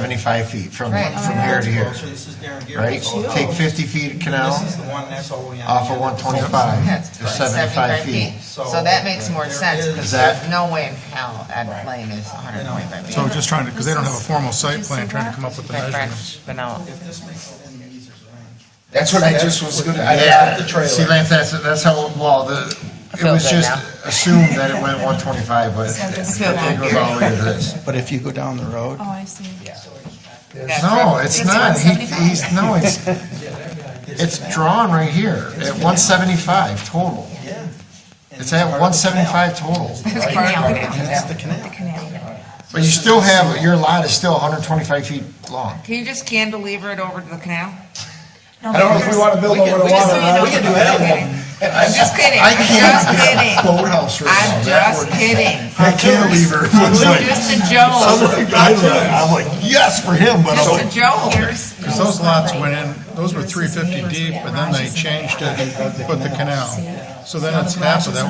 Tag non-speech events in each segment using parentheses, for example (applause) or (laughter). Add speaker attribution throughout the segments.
Speaker 1: 75 feet from,
Speaker 2: Right.
Speaker 1: from here to here,
Speaker 3: Closer, This is Darren
Speaker 1: right?
Speaker 3: Garrett's old house.
Speaker 1: Take 50 feet of canal
Speaker 3: This is the one that's over on.
Speaker 1: off of
Speaker 2: Yeah,
Speaker 1: 125
Speaker 2: it's
Speaker 1: to 75 feet.
Speaker 2: So that makes more sense, because
Speaker 1: Is
Speaker 2: there's
Speaker 1: that-
Speaker 2: no way in hell Ed Lane is 125 feet.
Speaker 4: So we're just trying to, because they don't have a formal site plan, trying to come up with the
Speaker 2: But
Speaker 4: measurements.
Speaker 2: French, but no.
Speaker 3: If this makes it in the user's range.
Speaker 1: That's what I just was gonna, I
Speaker 5: Yeah, the trailer.
Speaker 1: See, Lance, that's, that's how, well, the, it
Speaker 2: feel
Speaker 1: was
Speaker 2: good
Speaker 1: just
Speaker 2: now.
Speaker 1: assumed that it went 125, but
Speaker 2: feel
Speaker 1: it
Speaker 2: good.
Speaker 1: goes all the way to this.
Speaker 5: But if you go down the road,
Speaker 6: Oh, I see.
Speaker 2: That's
Speaker 1: No,
Speaker 2: right.
Speaker 1: it's
Speaker 6: It's
Speaker 1: not. He,
Speaker 6: 175.
Speaker 1: he's, no, it's, it's drawn right here at 175 total.
Speaker 3: Yeah.
Speaker 1: It's at 175 total.
Speaker 6: It's part of the canal.
Speaker 3: That's the canal.
Speaker 6: Canal.
Speaker 1: But you still have, your lot is still 125 feet long.
Speaker 2: Can you just cantilever it over to the canal?
Speaker 5: I don't know if we want to build over the
Speaker 2: uh, We just so
Speaker 5: water.
Speaker 2: you know
Speaker 5: line.
Speaker 2: what you're doing. I'm just kidding,
Speaker 1: I
Speaker 2: I'm just
Speaker 1: can't,
Speaker 2: (laughs) kidding.
Speaker 1: boathouse right now.
Speaker 2: I'm just kidding.
Speaker 1: I can't leave her. It's like-
Speaker 2: Just a joke,
Speaker 1: I love it. I'm like, yes, for him, but I'm
Speaker 2: just a
Speaker 1: like,
Speaker 2: joke.
Speaker 4: Because those lots went in, those were 350 deep, but then they changed it, and put the canal. So then it's half of that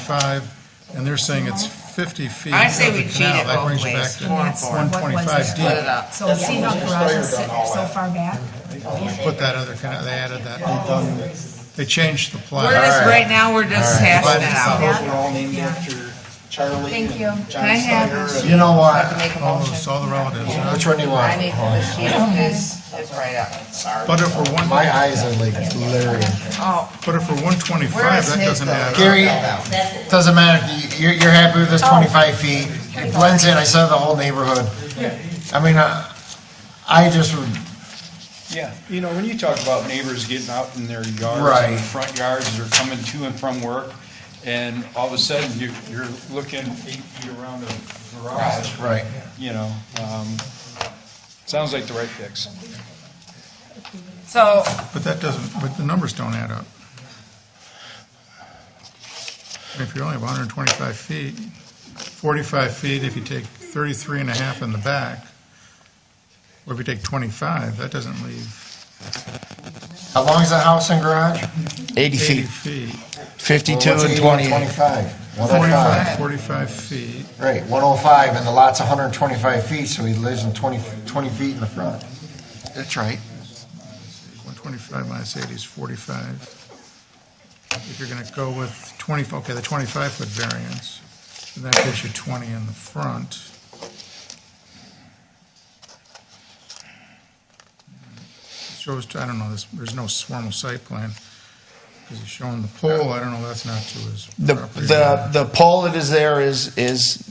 Speaker 4: 175, and they're saying it's 50 feet of
Speaker 2: I say we
Speaker 4: the
Speaker 2: cheat
Speaker 4: canal.
Speaker 2: it
Speaker 4: That
Speaker 2: both
Speaker 4: brings you back
Speaker 2: ways,
Speaker 4: to
Speaker 2: four and four.
Speaker 4: 125
Speaker 2: Split it
Speaker 4: deep.
Speaker 2: up.
Speaker 6: So see how garages sit so far back?
Speaker 4: Put that other canal, they added that. They changed the
Speaker 2: We're
Speaker 4: plat.
Speaker 2: just, right now, we're just hashing it out.
Speaker 3: Those were all named after Charlie
Speaker 6: Thank
Speaker 3: and
Speaker 6: you.
Speaker 3: John
Speaker 2: Can I have
Speaker 3: Steyer
Speaker 2: this?
Speaker 3: and-
Speaker 1: you know what?
Speaker 2: Make a
Speaker 4: All
Speaker 2: motion.
Speaker 4: those, all the relatives.
Speaker 1: Which one do you
Speaker 2: I
Speaker 1: want?
Speaker 2: need the sheet is, is right up.
Speaker 4: But if we're one,
Speaker 1: My eyes are like glaring.
Speaker 2: Oh,
Speaker 4: but if we're
Speaker 2: Where
Speaker 4: 125,
Speaker 2: is
Speaker 4: that
Speaker 2: his,
Speaker 4: doesn't
Speaker 2: though?
Speaker 4: add up.
Speaker 1: Gary, doesn't matter. if you- You're, you're happy with this 25 feet. It blends in. I saw the whole neighborhood. I mean, I, I just would,
Speaker 7: Yeah, you know, when you talk about neighbors getting out in their yards,
Speaker 1: Right.
Speaker 7: and front yards, or coming to and from work, and all of a sudden, you, you're looking eight feet around a garage,
Speaker 1: right.
Speaker 7: you know, um, sounds like the right fix.
Speaker 2: so,
Speaker 4: But that doesn't, but the numbers don't add up. If you only have 125 feet, 45 feet, if you take 33 and a half in the back, or if you take 25, that doesn't leave
Speaker 1: How long is the house and garage?
Speaker 5: 80
Speaker 4: 80
Speaker 5: feet,
Speaker 4: feet.
Speaker 5: 52
Speaker 1: Well, what's
Speaker 5: and
Speaker 1: 80
Speaker 5: 20.
Speaker 1: 25. 105.
Speaker 4: 45, 45 feet,
Speaker 1: Right, 105, and the lot's 125 feet, so he lives in 20, 20 feet in the front. That's right.
Speaker 4: 125 minus 80 is 45. If you're going to go with 20, okay, the 25-foot variance, then that gives you 20 in the front. Shows, I don't know, this- there's no formal site plan, because he's showing the pole, I don't know, that's not to his
Speaker 5: The,
Speaker 4: property.
Speaker 5: the, the pole that is there is, is,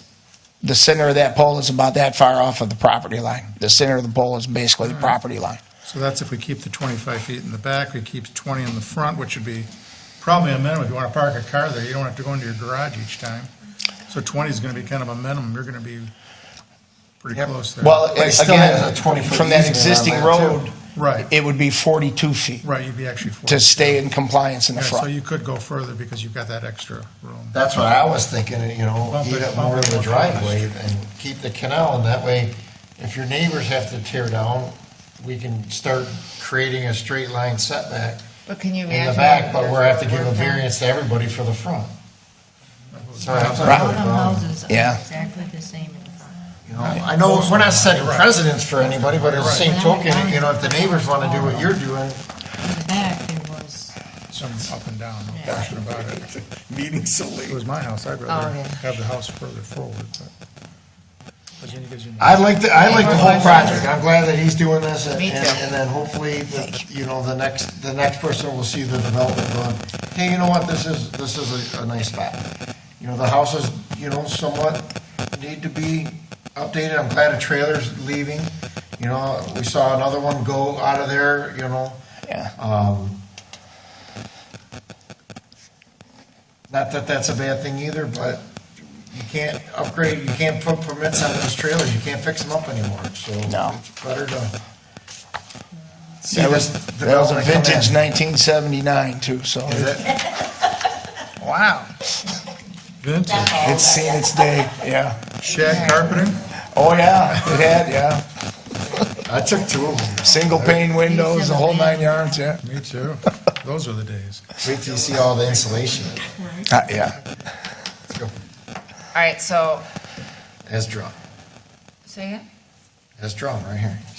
Speaker 5: the center of that pole is about that far off of the property line. The center of the pole is basically the property line.
Speaker 4: So that's if we keep the 25 feet in the back, we keep 20 in the front, which would be probably a minimum. If you want to park a car there, you don't have to go into your garage each time. So 20 is going to be kind of a minimum. You're going to be pretty close there.
Speaker 5: Well,
Speaker 1: But it still
Speaker 5: again,
Speaker 1: has a 20 foot
Speaker 5: from that
Speaker 1: easement
Speaker 5: existing
Speaker 1: around there, too.
Speaker 5: road,
Speaker 4: Right,
Speaker 5: it would be 42 feet
Speaker 4: right, you'd be actually 40.
Speaker 5: to stay in compliance in
Speaker 4: Yeah,
Speaker 5: the
Speaker 4: So
Speaker 5: front.
Speaker 4: you could go further because you've got that extra room.
Speaker 1: That's what I was thinking, you know,
Speaker 4: Bump it,
Speaker 1: eat up
Speaker 4: bump
Speaker 1: more of
Speaker 4: it,
Speaker 1: the
Speaker 4: bump it.
Speaker 1: driveway and keep the canal, and that way, if your neighbors have to tear down, we can start creating a straight line setback
Speaker 2: but can you
Speaker 1: in
Speaker 2: imagine?
Speaker 1: the back, but
Speaker 2: what
Speaker 1: we're have to give
Speaker 2: we're
Speaker 1: a
Speaker 2: doing?
Speaker 1: variance to everybody for the front. Sorry, I'm sorry.
Speaker 5: Right. Yeah.
Speaker 6: exactly the same. in the front.
Speaker 1: You know, I know, we're not setting precedents for anybody, but at the same token, you know, if the neighbors want to do what you're doing,
Speaker 6: In the back, there was,
Speaker 4: Some up and down, no question about it.
Speaker 5: Meeting so late.
Speaker 4: If it was my house, I'd rather have the house further forward, but. but then it gives you-
Speaker 1: I like the, I like the whole project. I'm glad that he's doing this and,
Speaker 2: Me
Speaker 1: and
Speaker 2: too.
Speaker 1: and then hopefully, the- you know, the next, the next person will see the development going, hey, you know what, this is, this is a, a nice spot. You know, the houses, you know, somewhat need to be updated. I'm glad a trailer's leaving. You know, we saw another one go out of there, you know.
Speaker 5: Yeah.
Speaker 1: Um, Not that that's a bad thing either, but you can't upgrade, you can't put permits on those trailers, you can't fix them up anymore, so.
Speaker 5: No.
Speaker 1: It's better to. see
Speaker 5: That was,
Speaker 1: this
Speaker 5: that was a
Speaker 1: development come in.
Speaker 5: vintage 1979 too, so
Speaker 1: Is it?
Speaker 5: Wow.
Speaker 4: Vintage,
Speaker 5: It's seen its day, yeah.
Speaker 4: shag carpeting?
Speaker 5: Oh, yeah, it had, yeah.
Speaker 1: I took two of them.
Speaker 5: Single pane windows, the whole nine yards, yeah.
Speaker 4: Me too. Those are the days.
Speaker 1: Wait till you see all the insulation
Speaker 5: Uh, Yeah.
Speaker 2: All right, so,
Speaker 1: as drawn.
Speaker 2: say it.
Speaker 1: This drum right here.